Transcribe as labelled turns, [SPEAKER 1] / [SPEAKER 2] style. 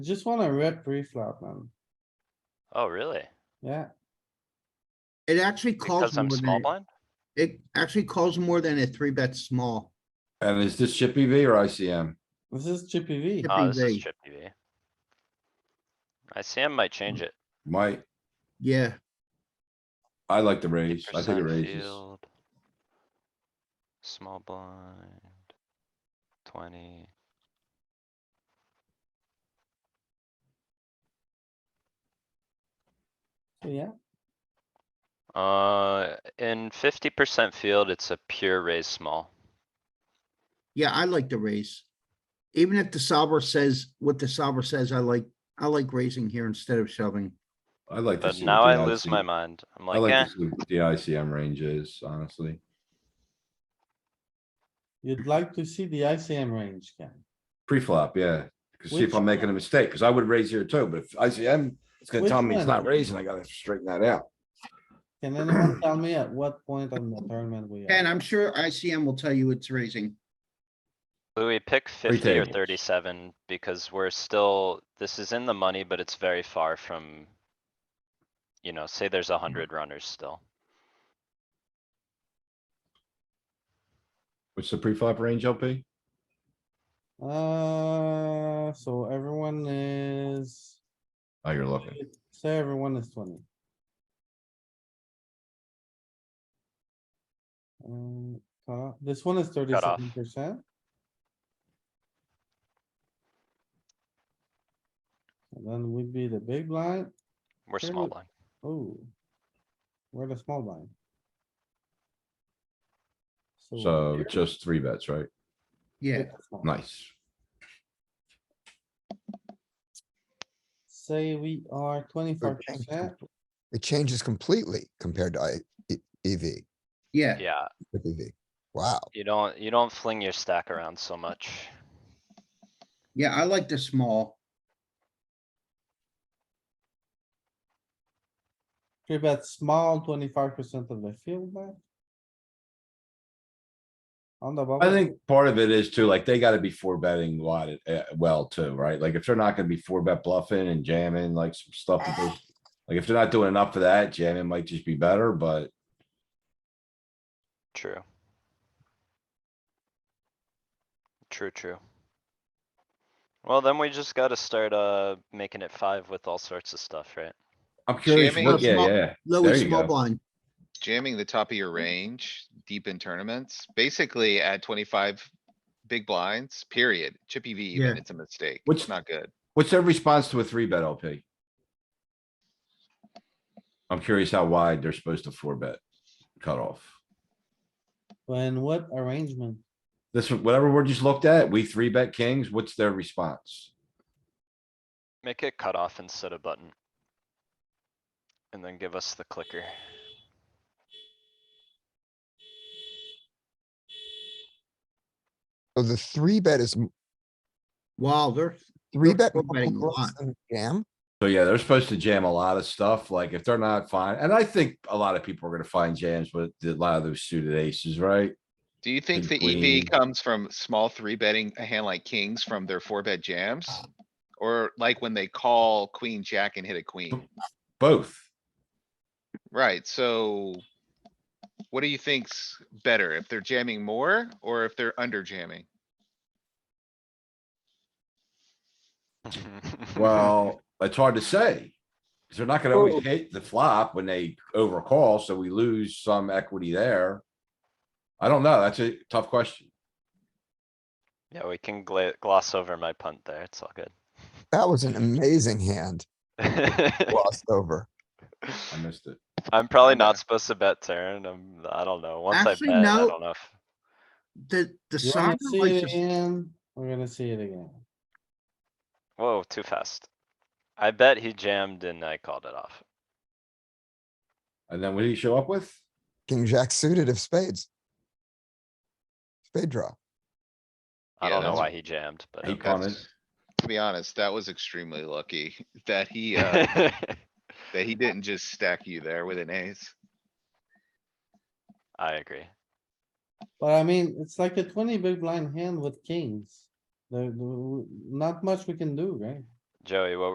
[SPEAKER 1] Just wanna rip pre-flop, man.
[SPEAKER 2] Oh, really?
[SPEAKER 1] Yeah,
[SPEAKER 3] It actually calls
[SPEAKER 2] Because
[SPEAKER 3] more
[SPEAKER 2] I'm small
[SPEAKER 3] than,
[SPEAKER 2] blind?
[SPEAKER 3] it actually calls more than a three bet small.
[SPEAKER 4] And is this chip EV or ICM?
[SPEAKER 1] this is chippy V.
[SPEAKER 3] Yep.
[SPEAKER 2] Oh, this is
[SPEAKER 3] PV.
[SPEAKER 2] chip V. ICM might change it.
[SPEAKER 4] Might,
[SPEAKER 3] Yeah,
[SPEAKER 4] I like the raise. I think
[SPEAKER 2] Percent
[SPEAKER 4] it raises.
[SPEAKER 2] field. Small blind. Twenty.
[SPEAKER 1] So, Yeah,
[SPEAKER 2] Uh, in fifty percent field, it's a pure raise small.
[SPEAKER 3] yeah, I like the raise. Even if the solver says, what the solver says, I like, I like raising here instead of shoving.
[SPEAKER 4] I like. to
[SPEAKER 2] But
[SPEAKER 4] see what
[SPEAKER 2] now
[SPEAKER 4] the
[SPEAKER 2] I lose
[SPEAKER 4] IC
[SPEAKER 2] my mind. I'm
[SPEAKER 4] I
[SPEAKER 2] like, eh,
[SPEAKER 4] like to see what the ICM range is, honestly.
[SPEAKER 1] you'd like to see the ICM range, Ken.
[SPEAKER 4] Pre-flop, yeah. 'Cause see if
[SPEAKER 1] Which
[SPEAKER 4] I'm making a mistake, because I would raise here too, but if ICM, it's gonna
[SPEAKER 1] Which
[SPEAKER 4] tell me it's
[SPEAKER 1] one?
[SPEAKER 4] not raising, I gotta straighten that out.
[SPEAKER 1] Can anyone tell me at what point on the tournament we
[SPEAKER 3] And
[SPEAKER 1] are?
[SPEAKER 3] I'm sure ICM will tell you it's raising.
[SPEAKER 2] Louis, pick fifty or
[SPEAKER 4] tables.
[SPEAKER 2] thirty-seven because we're still, this is in the money, but it's very far from. You know, say there's a
[SPEAKER 4] Mm-hmm.
[SPEAKER 2] hundred runners still.
[SPEAKER 4] What's the pre-flop range LP?
[SPEAKER 1] Uh, so everyone is,
[SPEAKER 4] Oh, you're looking.
[SPEAKER 1] say everyone is twenty. Um, uh, this one is
[SPEAKER 2] off.
[SPEAKER 1] thirty-seven percent. And then would be the big blind.
[SPEAKER 2] We're
[SPEAKER 1] Fair
[SPEAKER 2] small
[SPEAKER 1] enough.
[SPEAKER 2] blind.
[SPEAKER 1] Oh. We're the small blind.
[SPEAKER 4] So
[SPEAKER 1] here,
[SPEAKER 4] just three bets, right?
[SPEAKER 3] Yeah,
[SPEAKER 1] it's small.
[SPEAKER 4] Nice.
[SPEAKER 1] Say we are twenty-five percent,
[SPEAKER 5] It changes completely compared to I, E- EV,
[SPEAKER 3] yeah.
[SPEAKER 2] Yeah,
[SPEAKER 5] with EV. Wow.
[SPEAKER 2] you don't, you don't fling your stack around so much.
[SPEAKER 3] Yeah, I like the small.
[SPEAKER 1] three bet small, twenty-five percent of the field bet. On the bubble.
[SPEAKER 4] I think part of it is too, like, they gotta be four betting a lot, uh, well, too, right? Like, if they're not gonna be four bet bluffing and jamming, like, some stuff. that they- Like, if they're not doing enough of that, jamming might just be better, but
[SPEAKER 2] True. True, true. Well, then we just gotta start, uh, making it five with all sorts of stuff, right?
[SPEAKER 4] I'm curious,
[SPEAKER 6] Jamming
[SPEAKER 4] what-
[SPEAKER 3] is
[SPEAKER 4] yeah,
[SPEAKER 3] small-
[SPEAKER 4] yeah. There
[SPEAKER 3] Louis,
[SPEAKER 4] you
[SPEAKER 3] small
[SPEAKER 4] go.
[SPEAKER 3] blind.
[SPEAKER 6] jamming the top of your range, deep in tournaments, basically at twenty-five big blinds, period. Chippy V
[SPEAKER 3] Yeah.
[SPEAKER 6] even, it's a mistake.
[SPEAKER 4] Which-
[SPEAKER 6] It's not good.
[SPEAKER 4] What's their response to a three bet LP? I'm curious how wide they're supposed to four bet cutoff.
[SPEAKER 1] When what arrangement?
[SPEAKER 4] This, one- whatever we just looked at, we three bet kings, what's their response?
[SPEAKER 2] Make it cut off instead of button. And then give us the clicker.
[SPEAKER 5] So the three bet is m-
[SPEAKER 3] Wow, they're,
[SPEAKER 5] three
[SPEAKER 3] You're
[SPEAKER 5] bet.
[SPEAKER 3] still
[SPEAKER 5] more
[SPEAKER 3] betting a
[SPEAKER 5] bluffs
[SPEAKER 3] lot.
[SPEAKER 5] than Jam.
[SPEAKER 4] So yeah, they're supposed to jam a lot of stuff, like if they're not fine, and I think a lot of people are gonna find jams with a lot of those suited aces, right?
[SPEAKER 6] Do you think
[SPEAKER 4] Big
[SPEAKER 6] the
[SPEAKER 4] queen.
[SPEAKER 6] EV comes from small three betting a hand like kings from their four bet jams? Or like when they call queen, jack and hit a queen,
[SPEAKER 4] Both.
[SPEAKER 6] right? So what do you think's better? If they're jamming more or if they're under jamming?
[SPEAKER 4] Well, it's hard to say. they they're not gonna always hit the flop when they overcall, so we lose some equity there. I don't know. That's a tough question.
[SPEAKER 2] Yeah, we can gla- gloss over my punt there. It's all
[SPEAKER 5] That was an amazing hand
[SPEAKER 2] good.
[SPEAKER 5] glossed over.
[SPEAKER 4] I missed it.
[SPEAKER 2] I'm probably not supposed to bet turn. I'm, I don't know. Once I
[SPEAKER 3] Actually,
[SPEAKER 2] bet, I
[SPEAKER 3] no.
[SPEAKER 2] don't know. if-
[SPEAKER 3] the, the
[SPEAKER 1] You wanna
[SPEAKER 3] solver
[SPEAKER 1] see
[SPEAKER 3] likes,
[SPEAKER 1] it
[SPEAKER 3] to-
[SPEAKER 1] again? We're gonna see it again.
[SPEAKER 2] Whoa, too fast. I bet he jammed and I called it off.
[SPEAKER 4] And then what did he show up with?
[SPEAKER 5] King jack suited of spades. Spade draw.
[SPEAKER 2] I
[SPEAKER 6] Yeah,
[SPEAKER 2] don't know
[SPEAKER 6] that's-
[SPEAKER 2] why he jammed, but
[SPEAKER 4] He
[SPEAKER 2] okay.
[SPEAKER 4] punted.
[SPEAKER 6] To be honest, that was extremely lucky that he, uh, that he didn't just stack you there with an ace.
[SPEAKER 2] I agree.
[SPEAKER 1] But I mean, it's like a twenty big blind hand with kings. There, not much we can do, right?
[SPEAKER 2] Joey, what